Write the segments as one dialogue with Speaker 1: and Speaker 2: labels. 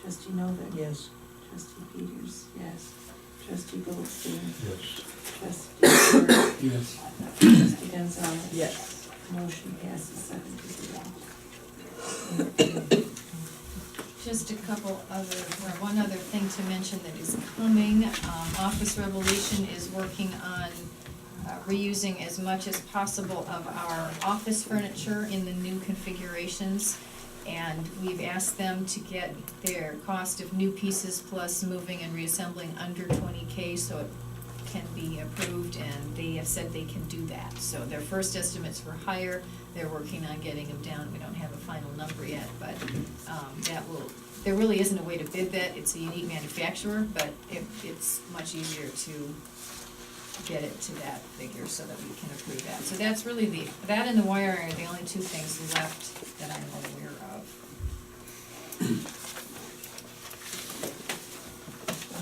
Speaker 1: Trustee Novak?
Speaker 2: Yes.
Speaker 1: Trustee Peters, yes. Trustee Goldstein?
Speaker 3: Yes.
Speaker 1: Trustee Stewart?
Speaker 3: Yes.
Speaker 1: Trustee Gonzalez?
Speaker 2: Yes.
Speaker 1: Motion passes seven to zero.
Speaker 4: Just a couple other, or one other thing to mention that is coming. Um, Office Revolution is working on uh, reusing as much as possible of our office furniture in the new configurations. And we've asked them to get their cost of new pieces plus moving and reassembling under twenty K so it can be approved and they have said they can do that. So their first estimates were higher, they're working on getting them down, we don't have a final number yet, but um, that will, there really isn't a way to bid that, it's a unique manufacturer, but it, it's much easier to get it to that figure so that we can approve that. So that's really the, that and the wiring are the only two things left that I'm aware of.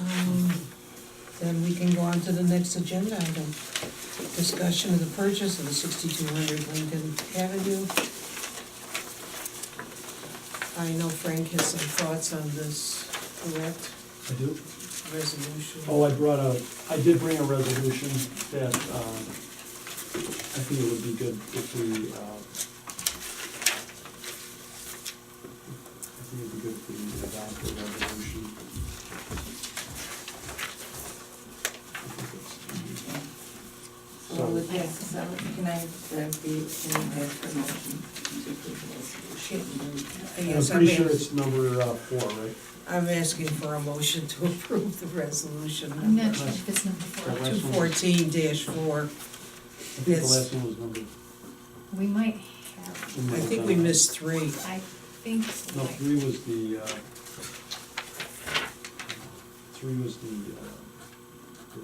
Speaker 2: Um, Then we can go on to the next agenda item. Discussion of the purchase of the sixty-two hundred Lincoln Avenue. I know Frank has some thoughts on this, correct,
Speaker 3: I do?
Speaker 2: resolution?
Speaker 3: Oh, I brought a, I did bring a resolution that, um, I think it would be good if we, uh, I think it'd be good if we adopt the resolution.
Speaker 1: So
Speaker 3: So-
Speaker 1: with that, so can I, uh, be, can I have a motion to approve the resolution?
Speaker 2: Hey,
Speaker 3: I'm
Speaker 2: yes,
Speaker 3: pretty
Speaker 2: I
Speaker 3: sure
Speaker 2: mean-
Speaker 3: it's number uh, four, right?
Speaker 2: I'm asking for a motion to approve the resolution.
Speaker 4: I'm not sure if it's number four.
Speaker 3: Correct.
Speaker 2: Two fourteen four.
Speaker 3: I think the
Speaker 2: Yes.
Speaker 3: last one was number.
Speaker 4: We might have,
Speaker 2: I think we missed three.
Speaker 4: I think,
Speaker 3: No, three was the, uh, three was the, uh, the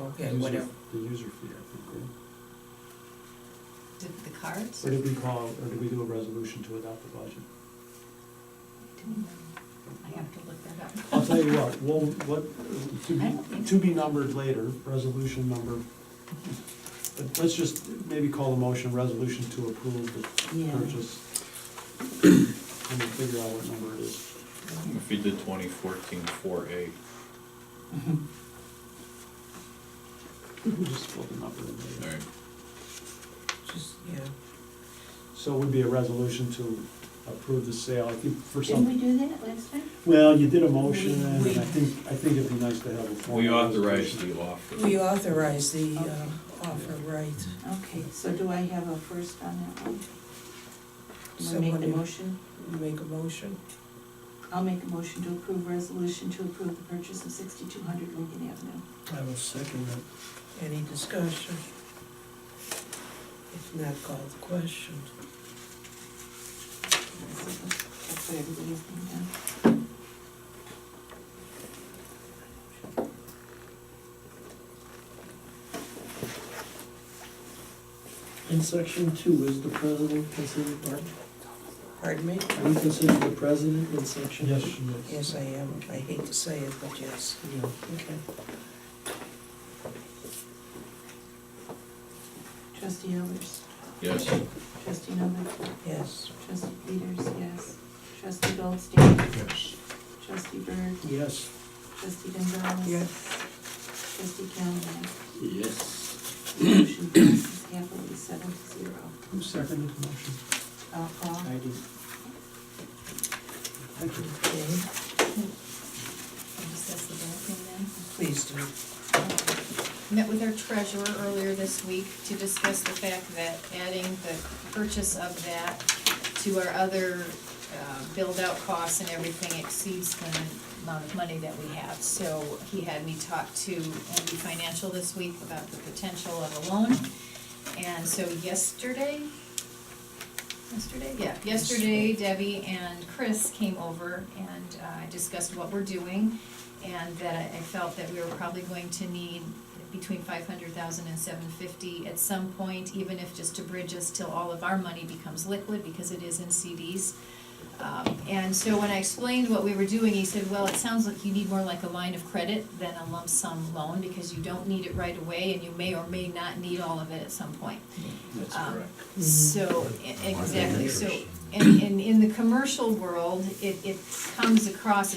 Speaker 2: Okay,
Speaker 3: User-
Speaker 2: whatever.
Speaker 3: The user fee, I think, right?
Speaker 4: did the cards?
Speaker 3: Or did we call, or did we do a resolution to adopt the budget?
Speaker 4: I have to look that up.
Speaker 3: I'll tell you what, well, what, to
Speaker 4: I don't think
Speaker 3: be, to be numbered later, resolution number, but let's just maybe call the motion resolution to approve the
Speaker 2: Yeah.
Speaker 3: purchase. And then figure out what number it is.
Speaker 5: If you did twenty fourteen four A,
Speaker 3: We'll just split the number in later.
Speaker 5: alright,
Speaker 2: Just, yeah.
Speaker 3: So it would be a resolution to approve the sale, I think, for
Speaker 1: Didn't
Speaker 3: some,
Speaker 1: we do that last time?
Speaker 3: well, you did a motion,
Speaker 2: We-
Speaker 3: and I
Speaker 2: we-
Speaker 3: think, I think it'd be nice to have a formal.
Speaker 5: we authorized
Speaker 3: resolution.
Speaker 5: the offer.
Speaker 2: We authorize the uh, offer, right?
Speaker 1: Okay, so do I have a first on that one? Do I make the
Speaker 2: Somebody-
Speaker 1: motion?
Speaker 2: You Make a motion?
Speaker 1: I'll make a motion to approve resolution to approve the purchase of sixty-two hundred Lincoln Avenue.
Speaker 3: I will second that.
Speaker 2: Any discussion? If not, call the question.
Speaker 1: That's what everybody's been done.
Speaker 6: In section two, is the president considered part?
Speaker 2: Pardon me?
Speaker 6: Are you considered the president in section?
Speaker 3: Yes,
Speaker 6: two?
Speaker 3: she is.
Speaker 2: Yes, I am. I hate to say it, but yes.
Speaker 6: Yeah, okay.
Speaker 1: Trustee Elbers?
Speaker 5: Yes,
Speaker 1: Trustee Novak?
Speaker 2: Yes.
Speaker 1: Trustee Peters, yes. Trustee Goldstein?
Speaker 3: Yes.
Speaker 1: Trustee Berg?
Speaker 6: Yes.
Speaker 1: Trustee Gonzalez? Trustee Calhoun?
Speaker 6: Yes.
Speaker 1: Motion passes happily, seven to zero.
Speaker 3: Who seconded the motion?
Speaker 1: I'll call.
Speaker 6: I do.
Speaker 3: Thank you.
Speaker 2: Okay,
Speaker 4: Can you discuss the back thing then?
Speaker 2: please do.
Speaker 4: met with our treasurer earlier this week to discuss the fact that adding the purchase of that to our other uh, build-out costs and everything exceeds the amount of money that we have. So he had me talk to MB Financial this week about the potential of a loan. And so yesterday, yesterday, yeah, yesterday Debbie and Chris came over and uh, I discussed what we're doing and that I I felt that we were probably going to need between five hundred thousand and seven fifty at some point, even if just to bridge us till all of our money becomes liquid, because it is in CDs. Um, and so when I explained what we were doing, he said, well, it sounds like you need more like a line of credit than a lump sum loan, because you don't need it right away, and you may or may not need all of it at some point.
Speaker 3: That's
Speaker 4: Um,
Speaker 3: correct.
Speaker 4: So, e- exactly, so, and, and in the commercial world, it, it comes across as